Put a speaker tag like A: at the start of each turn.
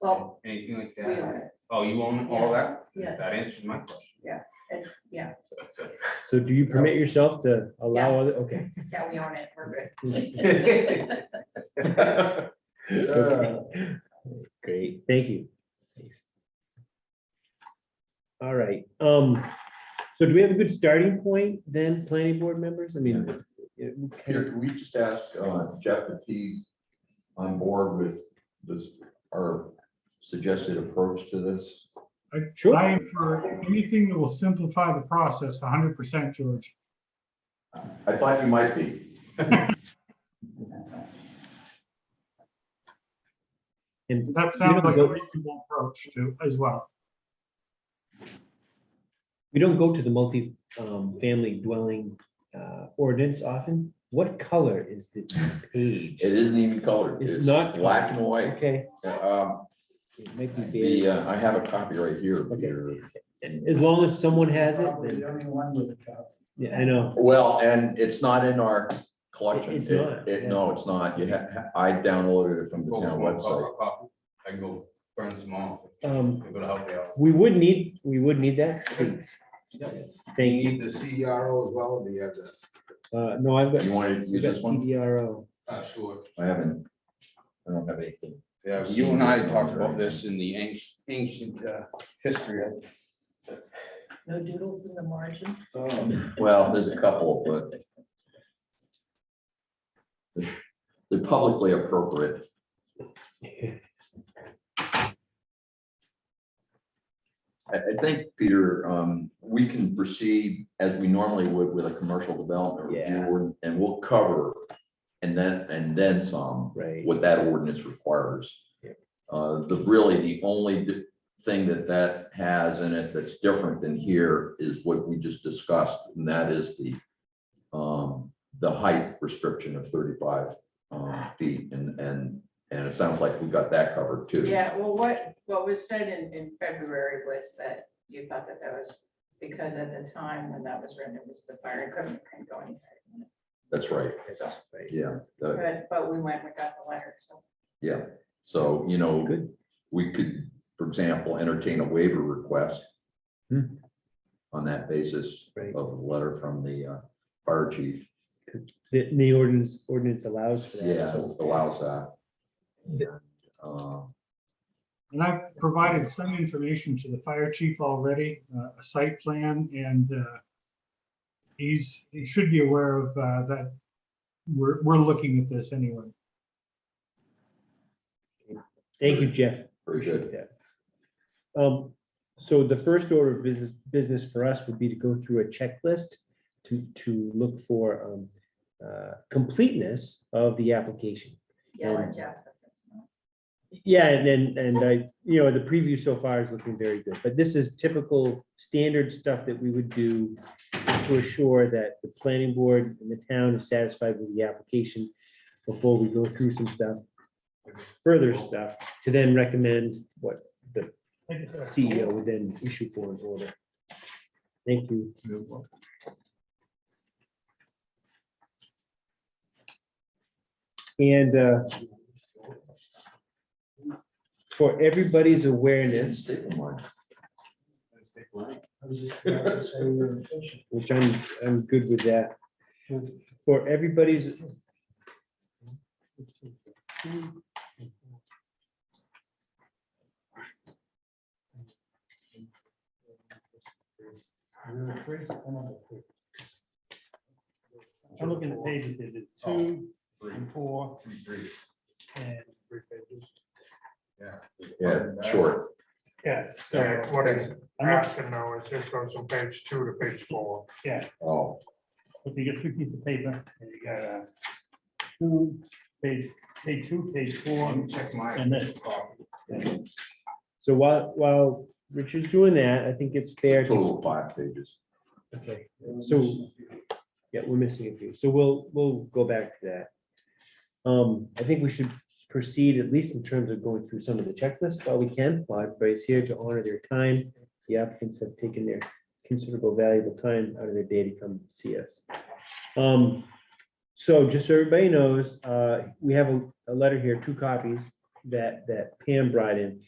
A: Well,
B: anything like
A: we
B: that?
A: own it.
B: Oh, you own all that?
A: Yes,
B: That
A: yes,
B: answers my question.
A: it's, yeah,
C: So do you permit yourself to allow other, okay.
A: yeah, we own it, we're good.
C: Okay.
D: Great.
C: Thank you. Thanks. All right, um, so do we have a good starting point then, planning board members? I mean. it- we
D: Peter,
C: kinda-
D: can we just ask uh, Jeff if he's on board with this, our suggested approach to this?
C: Sure,
E: I am for anything that will simplify the process hundred percent, George.
D: I thought you might be.
C: and
E: That sounds like a reasonable approach to as well.
C: we don't go to the multi-family dwelling uh, ordinance often. What color is the page?
D: It isn't even colored.
C: It's not
D: Black and white.
C: Okay.
D: Um,
C: it might be
D: The,
C: beige.
D: uh, I have a copy right here, Peter.
C: As long as someone has it,
F: Probably
C: then,
F: the only one with a cup.
C: yeah, I know.
D: Well, and it's not in our collection.
C: It's
D: It-
C: not,
D: It,
C: yeah. Oh,
D: no, it's not. You ha- I downloaded it from the
B: Folks
D: town
B: want a
D: website.
B: copy, a copy. I can go burn some off.
C: Um,
B: I'm gonna help you out.
C: we would need, we would need that, please. Thank you.
G: the CRO as well, or do you have the?
C: Uh, no, I've got.
D: You wanted to
C: I've
D: use
C: got
D: this one?
C: CDRO.
B: Uh, sure.
D: I haven't, I don't have anything.
B: Yeah, you and I talked about this in the ancient, ancient uh, history of.
A: No doodles in the margins.
B: um,
D: Well, there's a couple, but. They're publicly appropriate. I, I think, Peter, um, we can proceed as we normally would with a commercial development
C: Yeah.
D: review, ord- and we'll cover. And then, and then some,
C: Right.
D: what that ordinance requires.
C: Yep.
D: Uh, the, really, the only di- thing that that has in it that's different than here is what we just discussed, and that is the um, the height restriction of thirty-five um, feet, and, and, and it sounds like we got that covered too.
A: Yeah, well, what, what was said in, in February was that you thought that that was, because at the time when that was written, it was the fire equipment couldn't go anywhere.
D: That's right,
C: Yes, right.
D: yeah, the-
A: But, but we went, we got the letter, so.
D: yeah, so, you know,
C: Good.
D: we could, for example, entertain a waiver request
C: Hmm.
D: on that basis
C: Right.
D: of the letter from the uh, fire chief,
C: The, the ordinance, ordinance allows for that,
D: yeah,
C: so.
D: allows that. And, uh,
C: Um,
E: And I've provided some information to the fire chief already, uh, a site plan and uh, he's, he should be aware of uh, that. We're, we're looking at this anyway.
C: Thank you, Jeff.
D: Very good.
C: Appreciate that. Um, so the first order of business, business for us would be to go through a checklist to, to look for, um, uh, completeness of the application.
A: Yell at Jeff.
C: Yeah, and then, and I, you know, the preview so far is looking very good, but this is typical standard stuff that we would do to assure that the planning board and the town is satisfied with the application before we go through some stuff, further stuff, to then recommend what the CEO would then E issue for an order. Thank you. And, uh, for everybody's awareness,
F: I was just about to say we were efficient.
C: which I'm, I'm good with that. For everybody's,
F: You're free, I'm on the free.
H: I'm looking at pages, there's two
F: Oh.
H: and four
B: Three, three.
H: and three pages.
D: Yeah,
C: Um,
D: short.
H: Yeah,
G: Yeah, what is,
H: I'm not,
G: asking now is this goes from page two to page four.
D: Oh,
H: if you get three pieces of paper and you got a two, page, page two, page four,
G: Check my.
H: and then
C: so while, while Richard's doing that, I think it's fair to,
D: total of five pages.
C: okay, so, yeah, we're missing a few, so we'll, we'll go back to that. Um, I think we should proceed, at least in terms of going through some of the checklists while we can, while everybody's here to honor their time. The applicants have taken their considerable valuable time out of their day to come see us. Um, So just so everybody knows, uh, we have a, a letter here, two copies. that, that Pam brought in.